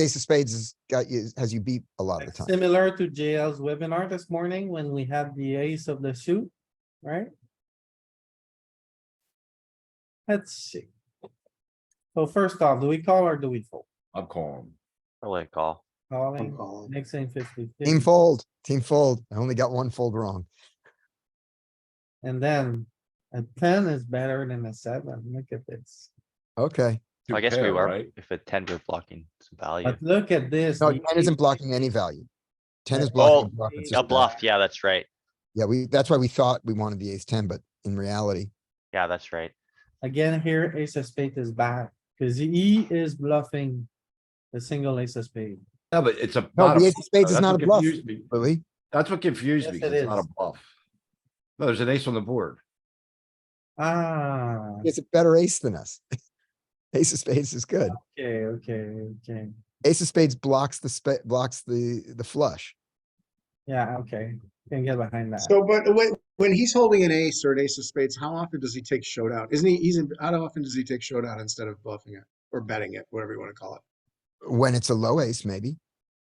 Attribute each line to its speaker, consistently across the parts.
Speaker 1: ace of spades has got you, has you beat a lot of the time.
Speaker 2: Similar to JL's webinar this morning when we had the ace of the suit, right? Let's see. So first off, do we call or do we fold?
Speaker 3: I'm calling.
Speaker 4: I like call.
Speaker 2: Calling, mixing fifty.
Speaker 1: Team fold, team fold. I only got one fold wrong.
Speaker 2: And then a ten is better than a seven. Look at this.
Speaker 1: Okay.
Speaker 3: Two
Speaker 4: I guess we
Speaker 3: pair,
Speaker 4: were,
Speaker 3: right?
Speaker 4: if a ten were blocking some value.
Speaker 2: But look at this.
Speaker 1: No,
Speaker 2: you-
Speaker 1: ten isn't blocking any value. Ten is
Speaker 2: Oh,
Speaker 1: blocking. bluff. It's
Speaker 2: a
Speaker 4: A
Speaker 1: just
Speaker 4: bluff, yeah, that's right.
Speaker 1: Yeah, we, that's why we thought we wanted the ace ten, but in reality,
Speaker 4: Yeah, that's right.
Speaker 2: Again, here ace of spade is bad, cause he is bluffing the single ace of spade.
Speaker 3: No, but it's a.
Speaker 1: No,
Speaker 3: not a
Speaker 1: the ace of
Speaker 3: bluff,
Speaker 1: spades is
Speaker 3: though. That's
Speaker 1: not
Speaker 3: what
Speaker 1: a bluff.
Speaker 3: confused me.
Speaker 1: Louis,
Speaker 3: That's what confused me.
Speaker 2: Yes, it
Speaker 3: 'cause It's not a
Speaker 2: is.
Speaker 3: bluff. No, there's an ace on the board.
Speaker 2: Ah,
Speaker 1: it's a better ace than us. Ace of spades is good.
Speaker 2: okay, okay, okay.
Speaker 1: Ace of spades blocks the spa, blocks the, the flush.
Speaker 2: Yeah, okay, can get behind that.
Speaker 5: So, but wait, when he's holding an ace or an ace of spades, how often does he take showdown? Isn't he, he's, in- how often does he take showdown instead of bluffing it or betting it, whatever you want to call it?
Speaker 1: When it's a low ace, maybe.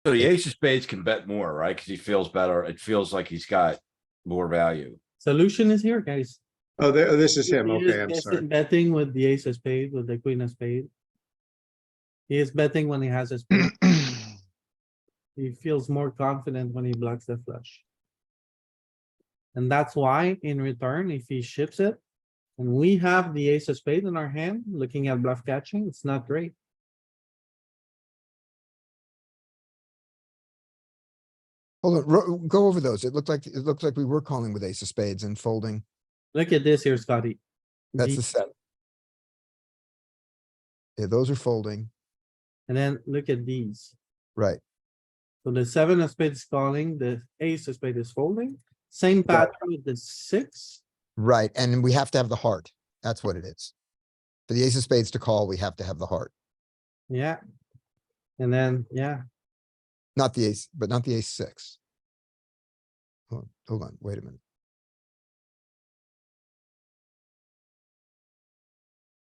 Speaker 3: So the ace of spades can bet more, right? Cause he feels better. It feels like he's got more value.
Speaker 2: Solution is here, guys.
Speaker 5: Oh, there, oh, this is him.
Speaker 2: He is
Speaker 5: Okay, I'm
Speaker 2: guessing-
Speaker 5: sorry.
Speaker 2: Betting with the ace of spade, with the queen of spade. He is betting when he has a spade. He feels more confident when he blocks the flush. And that's why in return, if he ships it, and we have the ace of spade in our hand, looking at bluff catching, it's not great.
Speaker 1: Hold on, ro- go over those. It looked like, it looked like we were calling with ace of spades and folding.
Speaker 2: Look at this here, Scotty.
Speaker 1: That's
Speaker 2: The-
Speaker 1: the seven. Yeah, those are folding,
Speaker 2: And then look at these.
Speaker 1: right?
Speaker 2: So the seven of spades is calling, the ace of spade is folding, same
Speaker 1: Right.
Speaker 2: pattern with the six.
Speaker 1: Right, and we have to have the heart. That's what it is. For the ace of spades to call, we have to have the heart,
Speaker 2: Yeah. And then, yeah,
Speaker 1: not the ace, but not the ace six. Hold on, hold on, wait a minute.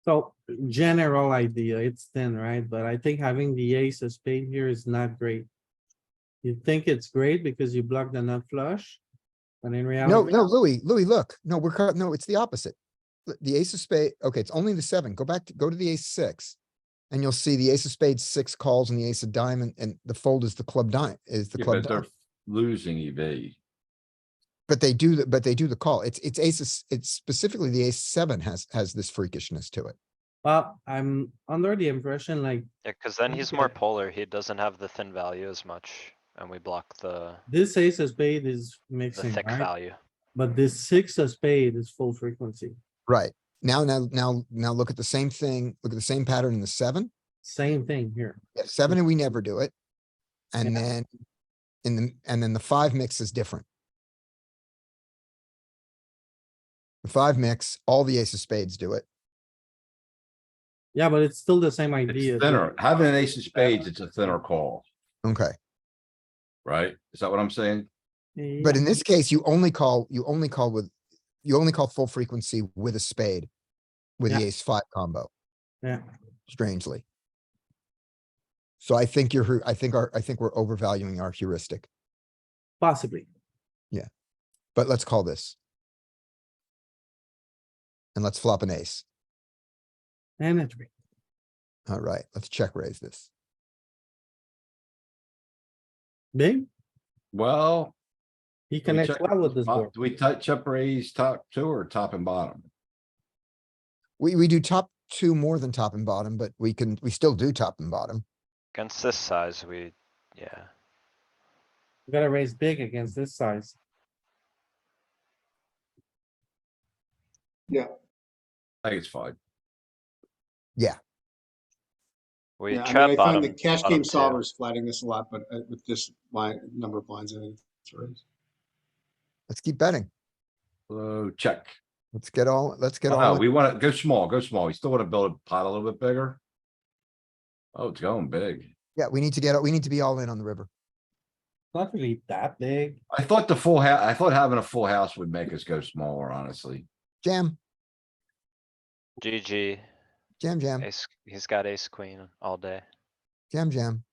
Speaker 2: so general idea, it's thin, right? But I think having the ace of spade here is not great. You think it's great because you block the nut flush, but in
Speaker 1: No,
Speaker 2: reality,
Speaker 1: no, Louis, Louis, look, no, we're, cor- no, it's the opposite. L- The ace of spade, okay, it's only the seven. Go back, to go to the ace six. And you'll see the ace of spades, six calls and the ace of diamond and the fold is the club dime, is the
Speaker 3: Yeah,
Speaker 1: club
Speaker 3: But
Speaker 1: dime.
Speaker 3: they're losing E EV.
Speaker 1: But they do, the- but they do the call. It's, it's aces, it's specifically the ace seven has, has this freakishness to it.
Speaker 2: well, I'm under the impression like
Speaker 6: Yeah, cuz then he's more
Speaker 2: Okay.
Speaker 6: polar. He doesn't have the thin value as much and we block the,
Speaker 2: this ace of spade is
Speaker 6: the
Speaker 2: mixing,
Speaker 6: thick
Speaker 2: right?
Speaker 6: value.
Speaker 2: But this six of spade is full frequency,
Speaker 1: Right. Now, now, now, now look at the same thing, look at the same pattern in the seven.
Speaker 2: same thing here.
Speaker 1: Yeah, Seven and we never do it. And
Speaker 2: Yeah.
Speaker 1: then, in the, and then the five mix is different. The five mix, all the ace of spades do it.
Speaker 2: Yeah, but it's still the same idea.
Speaker 3: It's thinner. Having an ace of spades, it's a thinner call,
Speaker 1: Okay,
Speaker 3: right? Is that what I'm saying?
Speaker 1: but in this case, you only call, you only call with, you only call full frequency with a spade. With the
Speaker 2: Yeah.
Speaker 1: ace five combo,
Speaker 2: Yeah,
Speaker 1: strangely. So I think you're, hu- I think our, I think we're overvaluing our heuristic,
Speaker 2: possibly.
Speaker 1: but let's call this. And let's flop an ace.
Speaker 2: And it's great.
Speaker 1: Alright, let's check raise this.
Speaker 2: Big,
Speaker 3: Well.
Speaker 2: he
Speaker 3: do we
Speaker 2: connects
Speaker 3: check-
Speaker 2: well with this
Speaker 3: uh,
Speaker 2: board.
Speaker 3: Do we touch up raise top two or top and bottom?
Speaker 1: We, we do top two more than top and bottom, but we can, we still do top and bottom.
Speaker 6: Against this size, we, yeah.
Speaker 2: You gotta raise big against this size.
Speaker 3: I think it's fine.
Speaker 6: We
Speaker 5: Yeah, I
Speaker 6: trap
Speaker 5: mean, I
Speaker 6: bottom.
Speaker 5: find the cash
Speaker 6: bottom
Speaker 5: game
Speaker 6: two.
Speaker 5: solvers flatting this a lot, but uh, with this line, number of blinds, I think it's right.
Speaker 1: Let's keep betting.
Speaker 3: So check.
Speaker 1: Let's get all, let's get
Speaker 3: Oh,
Speaker 1: all,
Speaker 3: no,
Speaker 1: in.
Speaker 3: we wanna go small, go small. We still wanna build a pot a little bit bigger. Oh, it's going big.
Speaker 1: yeah, we need to get, we need to be all in on the river.
Speaker 2: Not really that big.
Speaker 3: I thought the full house. I thought having a full house would make us go smaller, honestly.
Speaker 1: Jam,
Speaker 6: GG,
Speaker 1: jam, jam,
Speaker 6: ace, he's got ace queen all day.
Speaker 1: jam, jam.